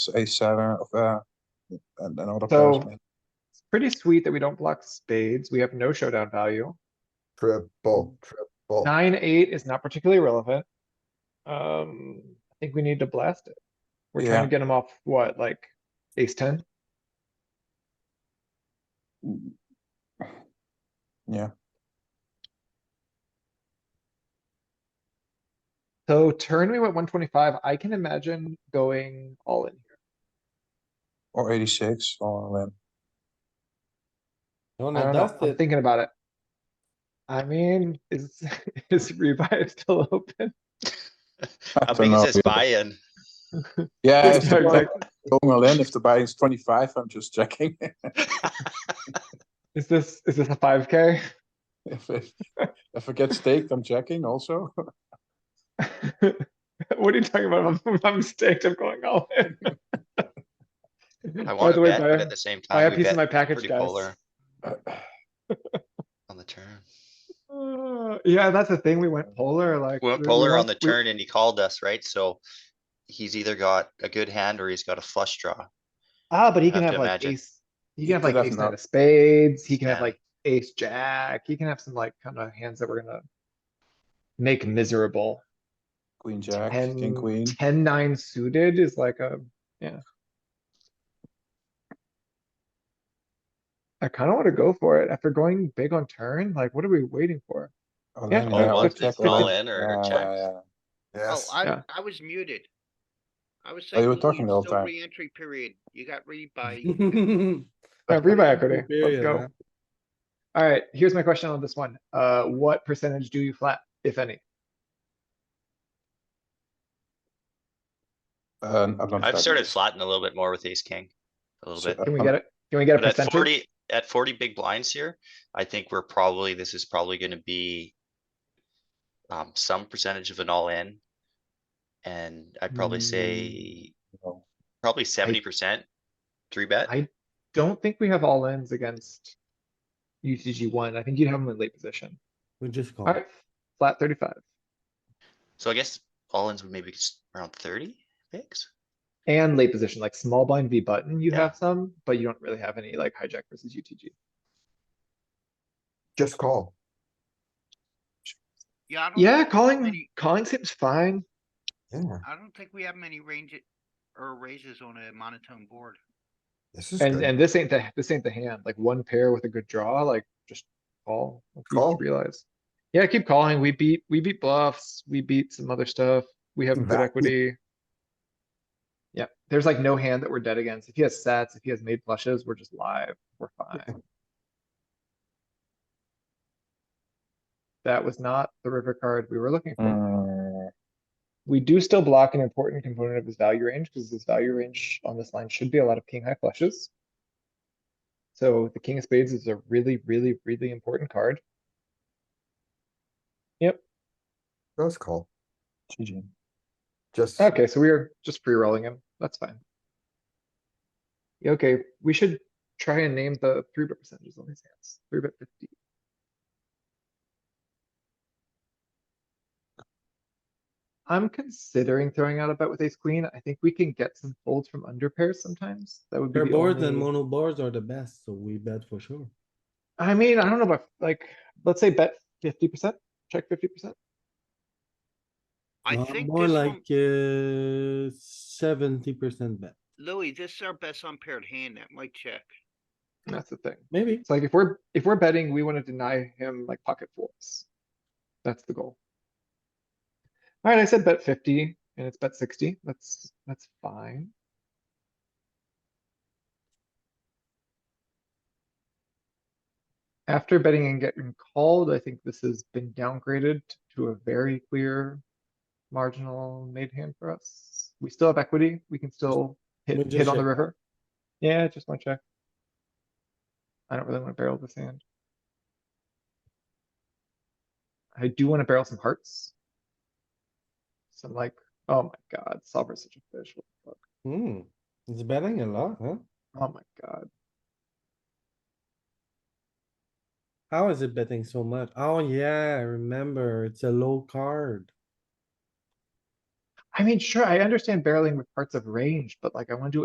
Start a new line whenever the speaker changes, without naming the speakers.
ace seven of, uh, and another
So-
person.
It's pretty sweet that we don't block spades. We have no showdown value.
Triple, triple.
Nine, eight is not particularly relevant. Um, I think we need to blast it. We're trying
Yeah.
to get him off what, like ace ten?
Yeah,
So turn we went one twenty-five. I can imagine going all in here.
or eighty-six or then.
I
You wanna
don't know.
dust
I'm
it?
thinking about it. I mean, is, is revive still open?
I
don't
think
know.
it says buy-in. Uh,
Yeah, if
No,
the buy-
exactly.
going all in, if the buy is twenty-five, I'm just checking.
Is this, is this a five K?
If it, if it gets staked, I'm checking also.
What are you talking about? If I'm- If I'm staked, I'm going all in.
I
By
want
the
to
way,
bet,
buy
but
a-
at the same
buy a
time, we
piece of my
bet
package,
pretty
guys.
polar
Uh,
on the turn.
Uh, Yeah, that's the thing. We went polar like.
We went
we- we
polar on
lost-
the
we-
turn and he called us, right? So he's either got a good hand or he's got a flush draw.
Ah, but he can
have
have
to
like
imagine.
ace, he can have
could
like
have
ace nine
not-
of spades, he can have
Yeah.
like ace jack, he can have some like kind of hands that we're gonna. Make miserable.
Queen, jack, king,
Ten,
queen.
ten, nine suited is like a, yeah. I kinda wanna go for it. After going big on turn, like what are we waiting for?
Oh,
Yeah,
then,
all
yeah,
one,
let's
it's
check all
all
in.
in or
Yeah,
check.
yeah, yeah.
Oh,
Yes,
I,
Yeah.
I was muted. I was
Oh, you
saying,
were
you
talking the whole
were still
time.
re-entry period. You got re by.
Uh, Rebuy equity, let's
Period,
go.
huh?
Alright, here's my question on this one. Uh, what percentage do you flat, if any?
Uh, I'm not
I've
flat.
started flattening a little bit more with ace king. A
So,
little bit.
uh,
Can we
I'm-
get it? Can we get a
Um, But at
percentage?
forty, at forty big blinds here, I think we're probably, this is probably gonna be. Um, some percentage of an all in. And I'd probably
Hmm.
say,
no.
probably seventy percent. Three bet.
I don't think we have all ins against UTG one. I think you'd have them in late position.
We just call.
Alright, flat thirty-five.
So I guess all ins would maybe just around thirty bigs.
And late position, like small blind V button, you
Yeah.
have some, but you don't really have any like hijack versus UTG.
just call.
Yeah, I don't
Yeah,
think we have
calling,
many-
calling seems fine.
Yeah,
I don't think we have many range it- or raises on a monotone board.
this is
And,
good.
and this ain't the, this ain't the hand, like one pair with a good draw, like just call. if you
Call.
Realize. Yeah, keep calling. We beat, we beat bluffs, we beat some other stuff. We have good
Exactly.
equity. Yeah, there's like no hand that we're dead against. If he has sets, if he has made flushes, we're just live. We're fine. That was not the river card we were looking for.
Mm,
We do still block an important component of his value range, because his value range on this line should be a lot of king high flushes. So the king of spades is a really, really, really important card.
Just call,
GG.
just,
Okay, so we are just pre-rolling him. That's fine. Yeah, Okay, we should try and name the three bet percentages on these hands. Three bet fifty. I'm considering throwing out a bet with ace queen. I think we can get some folds from under pairs sometimes. That would be
Pair
the
boards and
only-
mono boards are the best, so we bet for sure.
I mean, I don't know about like, let's say bet fifty percent, check fifty percent.
I
Uh,
think
More
this one,
like, uh, seventy percent bet,
Louis, this is our best unpaired hand. That might check.
That's the thing.
maybe.
It's like if we're, if we're betting, we wanna deny him like pocket fours. That's the goal. Alright, I said bet fifty and it's bet sixty. That's, that's fine. After betting and getting called, I think this has been downgraded to a very clear marginal made hand for us. We still have equity. We can still
We
hit,
just
hit on the
check.
river. Yeah, just one check. I don't really wanna barrel this hand. I do wanna barrel some hearts. Some like, oh my god, solver's such a fish. what the fuck.
Hmm, it's betting a lot, huh?
Oh my god.
How is it betting so much? Oh yeah, I remember, it's a low card.
I I mean, sure, I understand barreling with parts of range, but like I wanna do